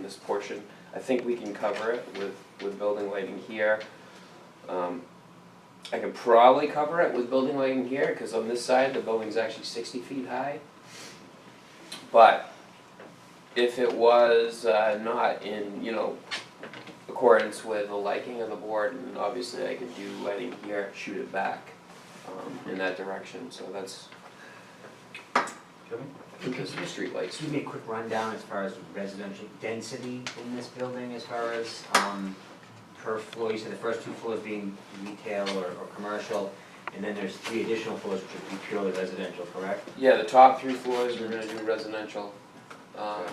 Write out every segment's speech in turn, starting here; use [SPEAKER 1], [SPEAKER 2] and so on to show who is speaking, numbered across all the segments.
[SPEAKER 1] this portion. I think we can cover it with, with building lighting here. Um, I can probably cover it with building lighting here, cause on this side, the building's actually sixty feet high. But if it was, uh, not in, you know, accordance with the liking of the board, and obviously I could do lighting here, shoot it back, um, in that direction, so that's,
[SPEAKER 2] Kevin?
[SPEAKER 1] because of the streetlights.
[SPEAKER 3] Give me a quick rundown as far as residential density in this building, as far as, um, per floor, you said the first two floors being retail or, or commercial, and then there's three additional floors which would be purely residential, correct?
[SPEAKER 1] Yeah, the top three floors, we're gonna do residential. Um,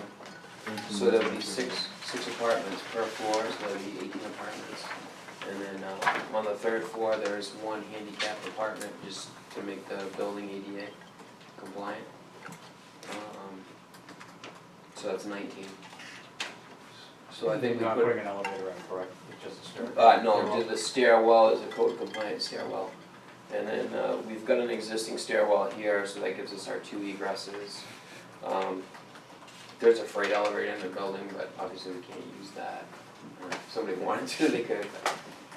[SPEAKER 1] so there'll be six, six apartments per floor, so there'll be eighteen apartments. And then, uh, on the third floor, there is one handicapped apartment, just to make the building ADA compliant. Um, So that's nineteen. So I think we
[SPEAKER 2] Not
[SPEAKER 1] put,
[SPEAKER 2] putting an elevator in, correct? It's just a stair.
[SPEAKER 1] uh, no, the- the stairwell is a code compliant stairwell. And then, uh, we've got an existing stairwell here, so that gives us our two egresses. Um, There's a freight elevator in the building, but obviously we can't use that. Or If somebody wanted to, they could,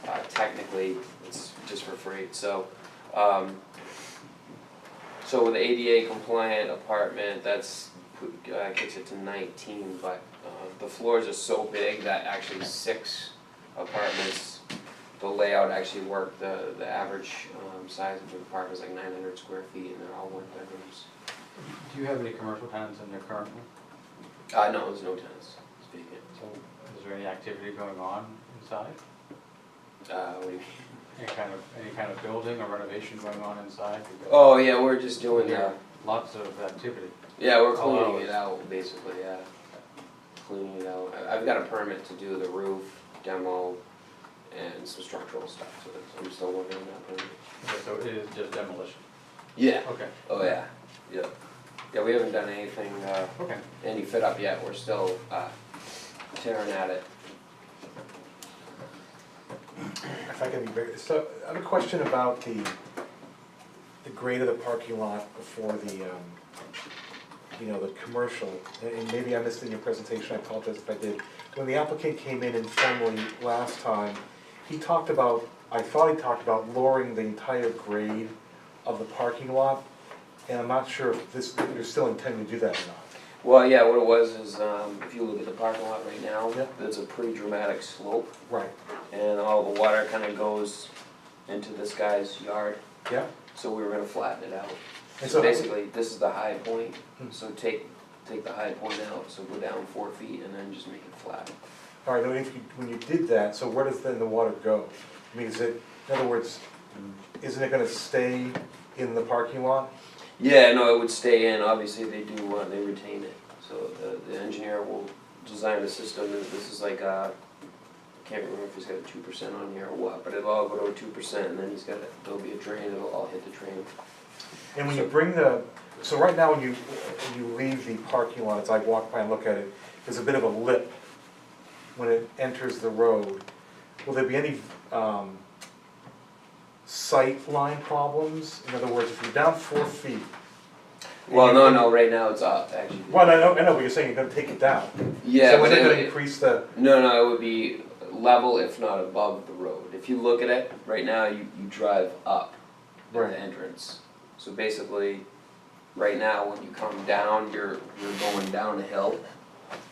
[SPEAKER 1] uh, technically, it's just for freight, so, um, so with the ADA compliant apartment, that's, put- uh, kicks it to nineteen, but, uh, the floors are so big that actually six apartments, the layout actually worked, the, the average, um, size of the apartment is like nine hundred square feet, and they're all one bedrooms.
[SPEAKER 2] Do you have any commercial tenants in there currently?
[SPEAKER 1] Uh, no, there's no tenants, speaking,
[SPEAKER 2] So is there any activity going on inside?
[SPEAKER 1] uh, we,
[SPEAKER 2] Any kind of, any kind of building or renovation going on inside? We've got
[SPEAKER 1] oh, yeah, we're just doing, uh,
[SPEAKER 2] Lots of activity.
[SPEAKER 1] yeah, we're
[SPEAKER 2] Hello.
[SPEAKER 1] cleaning it out, basically, yeah. Cleaning it out, I, I've got a permit to do the roof demo and some structural stuff, so that's- I'm still working on that permit.
[SPEAKER 2] Okay, So it is just demolition.
[SPEAKER 1] Yeah,
[SPEAKER 2] Okay,
[SPEAKER 1] oh, yeah, yeah, yeah, we haven't done anything, uh,
[SPEAKER 2] okay.
[SPEAKER 1] any fit up yet, we're still, uh, tearing at it.
[SPEAKER 4] If I can be very, so I have a question about the, the grade of the parking lot before the, um, you know, the commercial, and- and maybe I missed it in your presentation, I apologize if I did. When the applicant came in informally last time, he talked about, I thought he talked about lowering the entire grade of the parking lot, and I'm not sure if this, if you're still intending to do that or not.
[SPEAKER 1] Well, yeah, what it was is, um, if you look at the parking lot right now,
[SPEAKER 4] Yeah.
[SPEAKER 1] there's a pretty dramatic slope,
[SPEAKER 4] Right,
[SPEAKER 1] and all the water kinda goes into this guy's yard,
[SPEAKER 4] yeah?
[SPEAKER 1] so we were gonna flatten it out.
[SPEAKER 4] And
[SPEAKER 1] So
[SPEAKER 4] so,
[SPEAKER 1] basically, this is the high point,
[SPEAKER 4] Hmm.
[SPEAKER 1] so take, take the high point out, so go down four feet and then just make it flat.
[SPEAKER 4] all right, now if you, when you did that, so where does then the water go? I mean, is it, in other words, isn't it gonna stay in the parking lot?
[SPEAKER 1] Yeah, no, it would stay in, obviously, they do, uh, they retain it, so the, the engineer will design a system, that this is like, uh, can't remember if he's got a two percent on here or what, but it'll all go to two percent, and then he's got, a- there'll be a drain, it'll all hit the drain.
[SPEAKER 4] And when you bring the, so right now, when you, when you leave the parking lot, as I walk by and look at it, there's a bit of a lip when it enters the road. Will there be any, um, sight line problems? In other words, if you're down four feet. and
[SPEAKER 1] Well,
[SPEAKER 4] you-
[SPEAKER 1] no, no, right now it's up, actually.
[SPEAKER 4] Well, I know, I know, but you're saying you're gonna take it down.
[SPEAKER 1] Yeah,
[SPEAKER 4] So
[SPEAKER 1] but
[SPEAKER 4] we're
[SPEAKER 1] it
[SPEAKER 4] gonna
[SPEAKER 1] would,
[SPEAKER 4] increase the,
[SPEAKER 1] no, no, it would be level if not above the road. If you look at it, right now, you, you drive up at
[SPEAKER 4] Right.
[SPEAKER 1] the entrance. So basically, right now, when you come down, you're, you're going down a hill.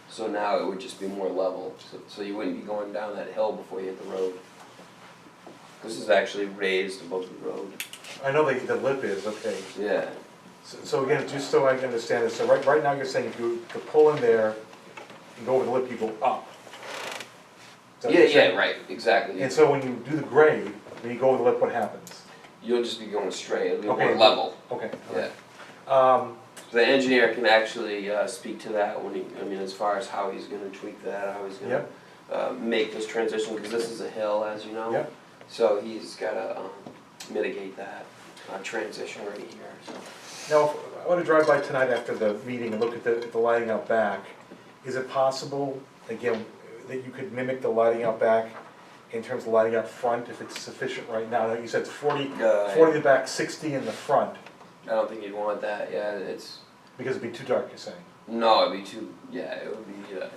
[SPEAKER 1] So now it would just be more level, so, so you wouldn't be going down that hill before you hit the road. This is actually raised above the road,
[SPEAKER 4] I know the, the lip is, okay.
[SPEAKER 1] yeah.
[SPEAKER 4] So- So again, just so I can understand this, so right, right now you're saying if you could pull in there and go over the lip, you go up. Is that
[SPEAKER 1] Yeah,
[SPEAKER 4] what you're
[SPEAKER 1] yeah,
[SPEAKER 4] saying?
[SPEAKER 1] right, exactly.
[SPEAKER 4] And so when you do the grade, when you go over the lip, what happens?
[SPEAKER 1] You'll just be going straight, it'll be more
[SPEAKER 4] Okay.
[SPEAKER 1] level,
[SPEAKER 4] Okay,
[SPEAKER 1] yeah.
[SPEAKER 4] alright. Um,
[SPEAKER 1] The engineer can actually uh, speak to that when he, I mean, as far as how he's gonna tweak that, how he's gonna
[SPEAKER 4] Yep.
[SPEAKER 1] uh, make this transition, because this is a hill, as you know.
[SPEAKER 4] Yep.
[SPEAKER 1] So he's gotta um, mitigate that uh, transition right here, so.
[SPEAKER 4] now, if I wanna drive by tonight after the meeting and look at the, the lighting out back. Is it possible, again, that you could mimic the lighting out back in terms of lighting out front if it's sufficient right now? Now, You said it's forty,
[SPEAKER 1] Uh,
[SPEAKER 4] forty in the back, sixty in the front,
[SPEAKER 1] I don't think you'd want that, yeah, it's,
[SPEAKER 4] because it'd be too dark, you're saying?
[SPEAKER 1] no, it'd be too, yeah, it would be, uh,